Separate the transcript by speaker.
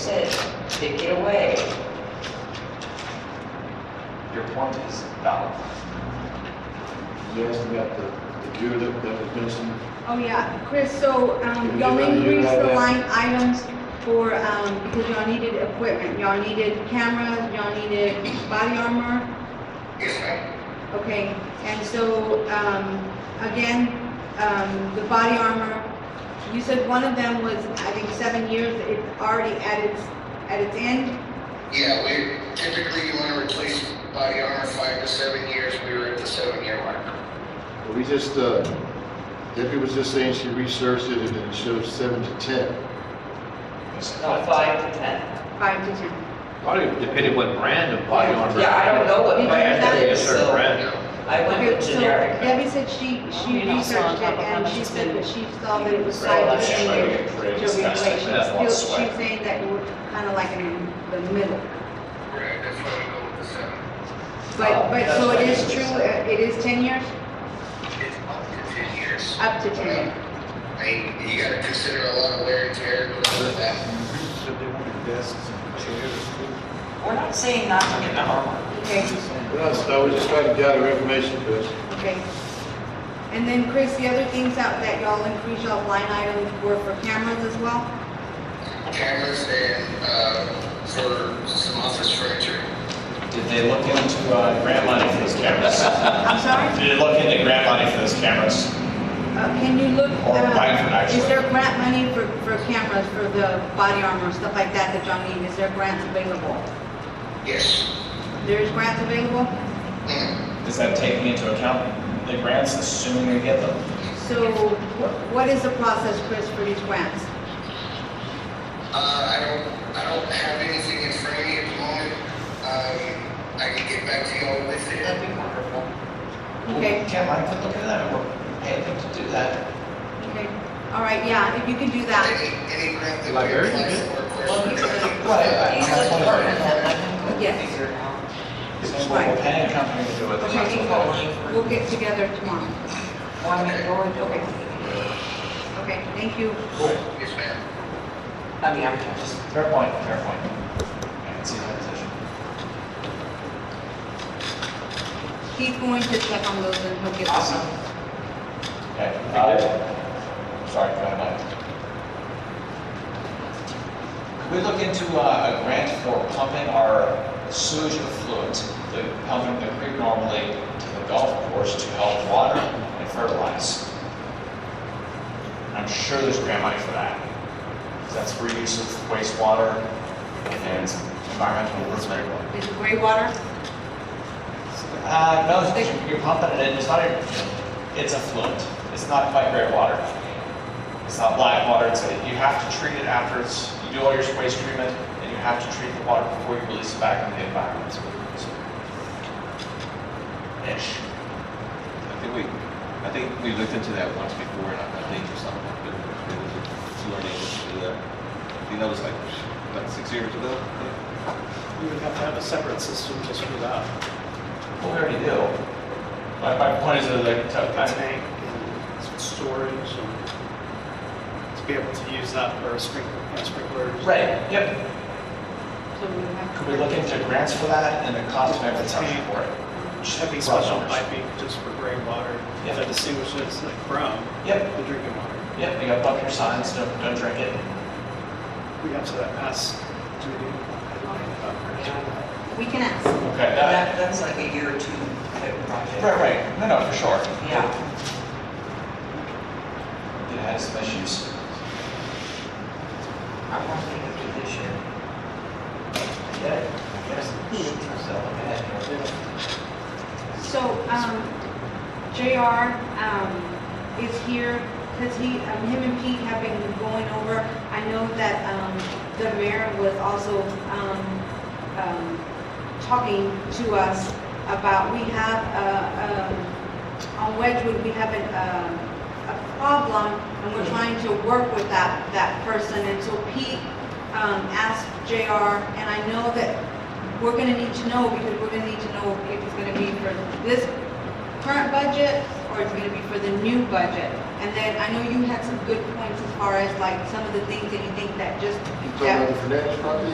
Speaker 1: take it away.
Speaker 2: Your point is valid.
Speaker 3: You asked about the, the gear that, that was missing.
Speaker 4: Oh, yeah, Chris, so, um, y'all
Speaker 3: Yeah, you
Speaker 4: increased
Speaker 3: have
Speaker 4: the
Speaker 3: that.
Speaker 4: line items for, um, because y'all needed equipment, y'all needed cameras, y'all needed body armor? Yes, ma'am. Okay, and so, um, again, um, the body armor, you said one of them was, I think, seven years, it's already at its, at its end?
Speaker 5: Yeah, we typically you want to replace body armor five to seven years. We were at the seven year mark.
Speaker 3: We just, uh, Debbie was just saying she researched it and it shows seven to ten.
Speaker 1: No, five to 10.
Speaker 4: Five to ten?
Speaker 6: Probably depending what brand of body armor.
Speaker 1: Yeah, I don't know what
Speaker 4: Because
Speaker 1: brand
Speaker 4: that
Speaker 1: it
Speaker 6: A
Speaker 1: is,
Speaker 4: is-
Speaker 6: certain
Speaker 1: so
Speaker 6: brand.
Speaker 5: No,
Speaker 1: I went
Speaker 4: Okay,
Speaker 1: with
Speaker 4: so
Speaker 1: generic.
Speaker 4: Debbie said she, she
Speaker 7: You know, so on
Speaker 4: researched it
Speaker 7: top of how
Speaker 4: and
Speaker 7: much
Speaker 4: she
Speaker 7: it's
Speaker 4: said
Speaker 7: been-
Speaker 4: that she saw that it was
Speaker 2: Right,
Speaker 4: five to
Speaker 2: that's
Speaker 4: ten
Speaker 2: right,
Speaker 4: years
Speaker 2: right,
Speaker 4: to
Speaker 2: discuss
Speaker 4: replace. She's
Speaker 2: that, that's
Speaker 4: still,
Speaker 2: one
Speaker 4: she's
Speaker 2: sweat.
Speaker 4: saying that we're kind of like in the middle.
Speaker 5: right, that's why we go with the seven.
Speaker 4: But,
Speaker 1: Oh,
Speaker 4: but,
Speaker 1: that's
Speaker 4: so
Speaker 1: what
Speaker 4: it
Speaker 1: it
Speaker 4: is
Speaker 1: is.
Speaker 4: true, uh, it is ten years,
Speaker 5: It's up to ten years.
Speaker 4: up to ten years.
Speaker 5: I mean, you gotta consider a lot of wear and tear and all that.
Speaker 8: Said they wanted desks and chairs too.
Speaker 1: We're not saying not to get the armor.
Speaker 4: Okay,
Speaker 3: Well, so we just trying to gather information, Chris.
Speaker 4: okay. And then Chris, the other things out that y'all increased y'all line items were for cameras as well?
Speaker 5: Cameras and, uh, for some office furniture.
Speaker 2: Did they look into uh, grant money for those cameras?
Speaker 4: I'm sorry,
Speaker 2: Did they look into grant money for those cameras?
Speaker 4: uh, can you look,
Speaker 2: Or Bradford,
Speaker 4: uh, is
Speaker 2: actually.
Speaker 4: there grant money for, for cameras, for the body armor, stuff like that that y'all need? Is there grants available?
Speaker 5: Yes.
Speaker 4: There's grants available?
Speaker 5: Mm.
Speaker 2: Is that taking into account the grants, assuming they get them?
Speaker 4: So wh- what is the process, Chris, for these grants?
Speaker 5: Uh, I don't, I don't have anything in front of me at the moment. Um, I can get back to y'all with it.
Speaker 1: That'd be wonderful.
Speaker 4: Okay.
Speaker 2: Kim, I could look at that, we're paying them to do that.
Speaker 4: Okay, all right, yeah, if you can do that,
Speaker 5: Any, any grant that we
Speaker 6: Librarian,
Speaker 5: apply
Speaker 6: yeah.
Speaker 5: for, of course,
Speaker 1: Well,
Speaker 5: we're
Speaker 1: he's
Speaker 5: gonna-
Speaker 1: like-
Speaker 2: Right, I-
Speaker 1: he's
Speaker 2: that's
Speaker 1: like
Speaker 2: what I'm
Speaker 1: part of
Speaker 2: saying.
Speaker 1: that, I can
Speaker 4: Yes.
Speaker 1: figure it out.
Speaker 2: So we're paying a company to do it. they might as
Speaker 1: Taking
Speaker 2: well
Speaker 1: more
Speaker 2: do it.
Speaker 1: money for
Speaker 4: we'll get together tomorrow.
Speaker 1: one minute, or, okay.
Speaker 4: Okay, thank you.
Speaker 5: Yes, ma'am.
Speaker 1: I mean, I'm just,
Speaker 2: Fair point, fair point. I can see that position.
Speaker 4: He's going to check on those and he'll get
Speaker 1: awesome.
Speaker 4: them.
Speaker 2: Okay, uh, sorry, go ahead. Could we look into uh, a grant for pumping our sewage effluent, the, pumping the creek normally to the golf course to help water and fertilize? I'm sure there's grant money for that. 'Cause That's for use of wastewater and environmental improvement.
Speaker 4: Is it gray water?
Speaker 2: Uh, no, it's- you're pumping it in, it's not, a- it's affluent, it's not quite great water. It's not black water, it's, a- you have to treat it after it's, you do all your waste treatment, and you have to treat the water before you release it back into the environment. Ish.
Speaker 6: I think we, I think we looked into that once before, and I I think it's not, but it was a sewer neighbor to do that. I think that was like, about six years ago. I think.
Speaker 8: We would have to have a separate system just for that.
Speaker 2: Well, we already do. My, my point is that like, to-
Speaker 8: A tank and some storage and to be able to use that for sprinkler, uh, sprinklers.
Speaker 2: Right, yep.
Speaker 4: So we have.
Speaker 2: Could we look into grants for that and the cost of everything for it?
Speaker 8: Having
Speaker 2: Raw
Speaker 8: special
Speaker 2: numbers.
Speaker 8: piping just for gray water
Speaker 2: Yeah.
Speaker 8: that distinguishes it from
Speaker 2: Yep,
Speaker 8: the drinking water.
Speaker 2: yep, you got bump your signs, don't, don't drink it.
Speaker 8: We got to that past duty. uh,
Speaker 4: We can ask.
Speaker 2: Okay, that,
Speaker 1: that, that's like a year or two type project.
Speaker 2: right, right, no, no, for sure.
Speaker 1: Yeah,
Speaker 2: It has some issues.
Speaker 1: I want to do this year.
Speaker 2: Yeah, yes. So, okay.
Speaker 4: So, um, JR, um, is here, cause he, um, him and Pete have been going over. I know that, um, the mayor was also, um, um, talking to us about, we have, uh, um, on Wedgewood, we have an, um, a problem, and we're trying to work with that, that person, and so Pete, um, asked JR, and I know that we're gonna need to know, because we're gonna need to know if it's gonna be for this current budget, or it's gonna be for the new budget. And then, I know you had some good points as far as like some of the things that you think that just.
Speaker 3: You talking about
Speaker 4: that-
Speaker 3: the finance property?